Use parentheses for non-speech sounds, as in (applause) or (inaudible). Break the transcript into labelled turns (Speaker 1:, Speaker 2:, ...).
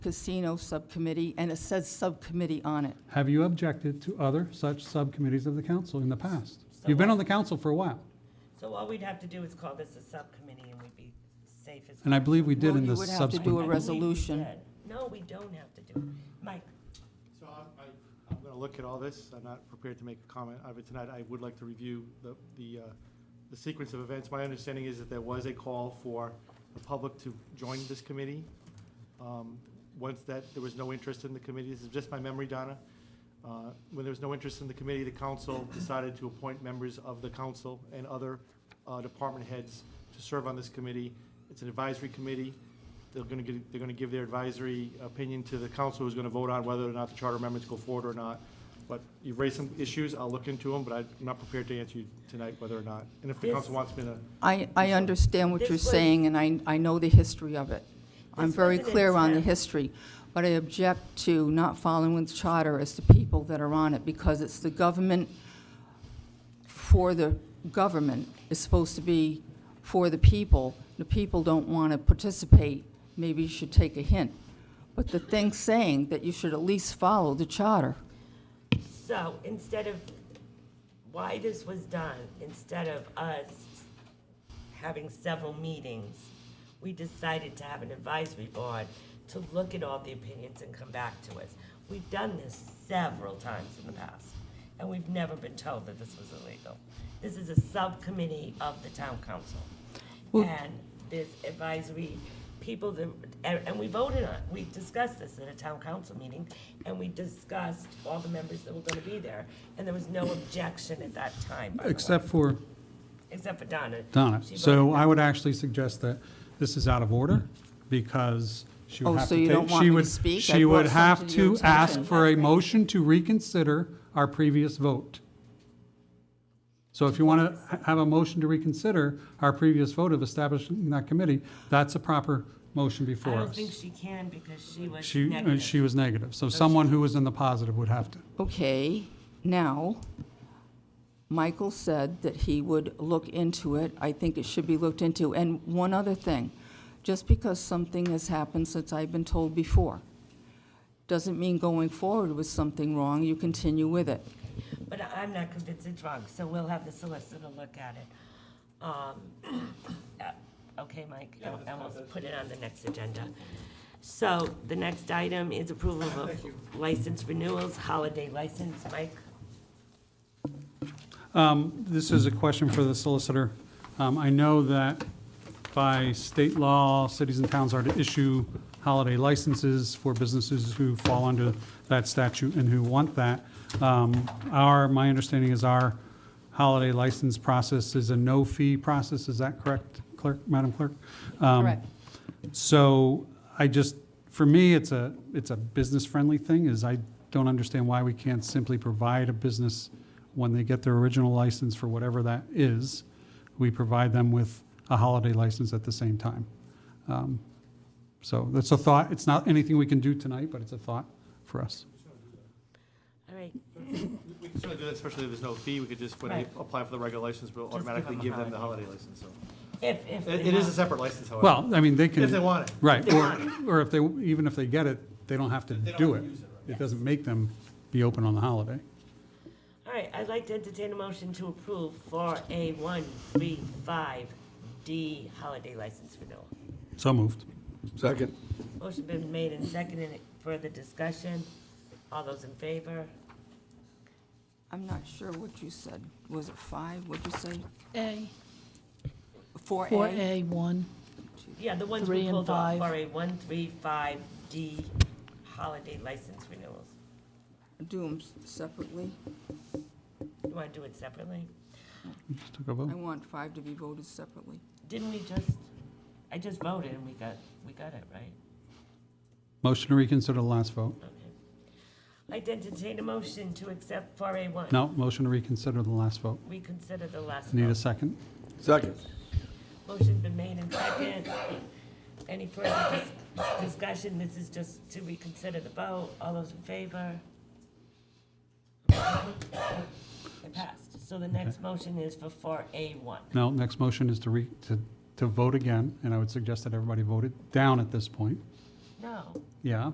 Speaker 1: Casino Subcommittee, and it says subcommittee on it.
Speaker 2: Have you objected to other such subcommittees of the council in the past? You've been on the council for a while,
Speaker 3: So all we'd have to do is call this a subcommittee and we'd be safe as.
Speaker 2: and I believe we did
Speaker 1: Well,
Speaker 2: in
Speaker 1: you
Speaker 2: the
Speaker 1: would have to do
Speaker 3: I
Speaker 1: a
Speaker 2: subsequent.
Speaker 3: believe we
Speaker 1: resolution.
Speaker 3: did. No, we don't have to do it. Mike,
Speaker 4: So I- I, I'm going to look at all this. I'm not prepared to make a comment of it tonight. I would like to review the, the, uh, the sequence of events. My understanding is that there was a call for the public to join this committee. Um, Once that, there was no interest in the committee, this is just my memory, Donna. Uh, When there was no interest in the committee, the council decided to appoint members of the council and other uh, department heads to serve on this committee. It's an advisory committee. They're going to, they're going to give their advisory opinion to the council who's going to vote on whether or not the charter amendments go forward or not. But you've raised some issues, I'll look into them, but I'm not prepared to answer you tonight whether or not. And if the
Speaker 3: This-
Speaker 4: council wants me to,
Speaker 1: I, I understand what
Speaker 3: This
Speaker 1: you're
Speaker 3: was-
Speaker 1: saying, and I, I know the history of it. I'm
Speaker 3: This
Speaker 1: very
Speaker 3: was an
Speaker 1: clear on the
Speaker 3: attempt.
Speaker 1: history, but I object to not following the charter as the people that are on it, because it's the government for the government, is supposed to be for the people. The people don't want to participate, maybe you should take a hint. But the thing saying that you should at least follow the charter.
Speaker 3: so instead of, why this was done, instead of us having several meetings, we decided to have an advisory board to look at all the opinions and come back to us. We've done this several times in the past, and we've never been told that this was illegal. This is a subcommittee of the town council.
Speaker 1: Well-
Speaker 3: And there's advisory people that, and, and we voted on, it. we discussed this at a town council meeting, and we discussed all the members that were gonna be there, and there was no objection at that time, by the way.
Speaker 2: Except for
Speaker 3: Except for Donna.
Speaker 2: Donna.
Speaker 3: She
Speaker 2: So
Speaker 3: voted
Speaker 2: I would actually suggest that this is out of order because she
Speaker 1: Oh,
Speaker 2: would have
Speaker 1: so
Speaker 2: to
Speaker 1: you don't
Speaker 2: take,
Speaker 1: want
Speaker 2: she
Speaker 1: me to
Speaker 2: would,
Speaker 1: speak? I
Speaker 2: she
Speaker 1: brought
Speaker 2: would have
Speaker 1: something to your
Speaker 2: to ask
Speaker 1: attention.
Speaker 2: for a motion to reconsider our previous vote. So if you want to have a motion to reconsider our previous vote of establishing that committee, that's a proper motion
Speaker 3: no. I
Speaker 2: before
Speaker 3: don't
Speaker 2: us.
Speaker 3: think she can because she was
Speaker 2: She, uh,
Speaker 3: negative.
Speaker 2: she was negative. So someone who was in the positive would have to.
Speaker 1: Okay, now, Michael said that he would look into it. I think it should be looked into. And one other thing, just because something has happened since I've been told before, doesn't mean going forward with something wrong, you continue with it.
Speaker 3: But I- I'm not convinced it's wrong, so we'll have the solicitor look at it. Um, (coughs) uh, Okay, Mike, and and we'll put it on the next agenda. So the next item is approval of license renewals, holiday license, Mike?
Speaker 2: Um, This is a question for the solicitor. Um, I know that by state law, cities and towns are to issue holiday licenses for businesses who fall under that statute and who want that. Um, Our, my understanding is our holiday license process is a no-fee process. Is that correct, clerk, Madam Clerk? Um,
Speaker 1: Correct.
Speaker 2: so I just, for me, it's a, it's a business-friendly thing, is I don't understand why we can't simply provide a business when they get their original license for whatever that is, we provide them with a holiday license at the same time. Um, So that's a thought. It's not anything we can do tonight, but it's a thought for us.
Speaker 3: All right,
Speaker 4: we can certainly do that, especially if there's no fee. We could just, when they
Speaker 3: Right.
Speaker 4: apply for the regular license, we'll
Speaker 3: Just give
Speaker 4: automatically
Speaker 3: them a
Speaker 4: give them the holiday license, so.
Speaker 3: if, if.
Speaker 4: It
Speaker 3: they
Speaker 4: it is a
Speaker 3: want-
Speaker 4: separate license, however.
Speaker 2: Well, I mean, they can.
Speaker 4: If they want it.
Speaker 2: Right, or, or if they, even if they get it, they don't have to do it. It doesn't make them be open on the holiday.
Speaker 3: All right, I'd like to entertain a motion to approve for a one, three, five, D holiday license renewal.
Speaker 2: So moved.
Speaker 5: Second.
Speaker 3: Motion been made and seconded. Further discussion? All those in favor?
Speaker 1: I'm not sure what you said. Was it five? What'd you say?
Speaker 6: A,
Speaker 1: Four
Speaker 6: four
Speaker 1: A?
Speaker 6: A, one.
Speaker 3: Yeah, the ones we
Speaker 6: Three and
Speaker 3: pulled off
Speaker 6: five.
Speaker 3: for a one, three, five, D holiday license renewals.
Speaker 1: Do them separately.
Speaker 3: You want to do it separately?
Speaker 2: Just took a vote.
Speaker 1: I want five to be voted separately.
Speaker 3: Didn't we just, I just voted and we got, we got it, right?
Speaker 2: Motion to reconsider the last vote.
Speaker 3: Okay. I'd entertain a motion to accept four A one.
Speaker 2: No, motion to reconsider the last vote.
Speaker 3: Reconsider the last
Speaker 2: Need a
Speaker 3: vote.
Speaker 2: second?
Speaker 5: Second.
Speaker 3: Motion's been made and second. Any further dis- discussion? This is just to reconsider the vote. All those in favor? It passed. So the next motion is for four A one.
Speaker 2: No, next motion is to re, to, to vote again, and I would suggest that everybody voted down at this point.
Speaker 3: No.
Speaker 2: Yeah,